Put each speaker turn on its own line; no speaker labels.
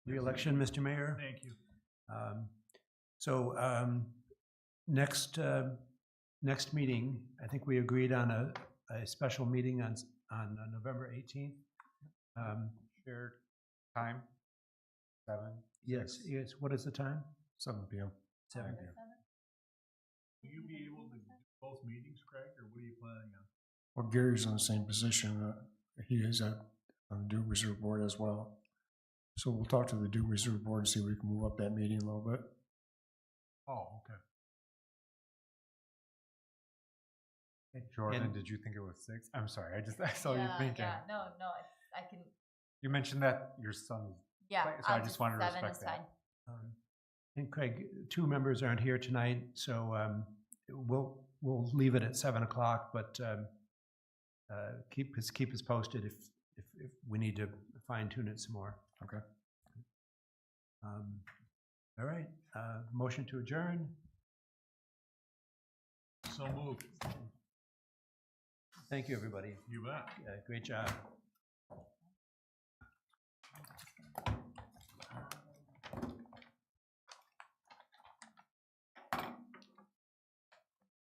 reelection, Mr. Mayor.
Thank you.
Um, So um, next, uh, next meeting, I think we agreed on a, a special meeting on, s- on uh, November 18th. Um,
Shared time, seven.
Yes, yes, what is the time?
Seven P M.
Seven.
Will you be able to do both meetings, Craig, or what are you planning on?
Well, Gary's in the same position. uh, He is at, on the Due Reserve Board as well. So we'll talk to the Due Reserve Board and see if we can move up that meeting a little bit.
Oh, okay.
And-
Jordan, did you think it was six? I'm sorry, I just, I saw you
Yeah,
thinking.
Yeah, no, no, it's- I can,
You mentioned that your son's,
yeah.
Right, so I
I'll
just
do
wanted to
seven
respect
is
that.
fine.
Um, And Craig, two members aren't here tonight, so um, we'll, we'll leave it at seven o'clock, but um, uh, keep us, keep us posted if, if, if we need to fine tune it some more.
Okay.
Um, All right, uh, motion to adjourn.
so moved.
Thank you, everybody.
You bet.
Uh, Great job.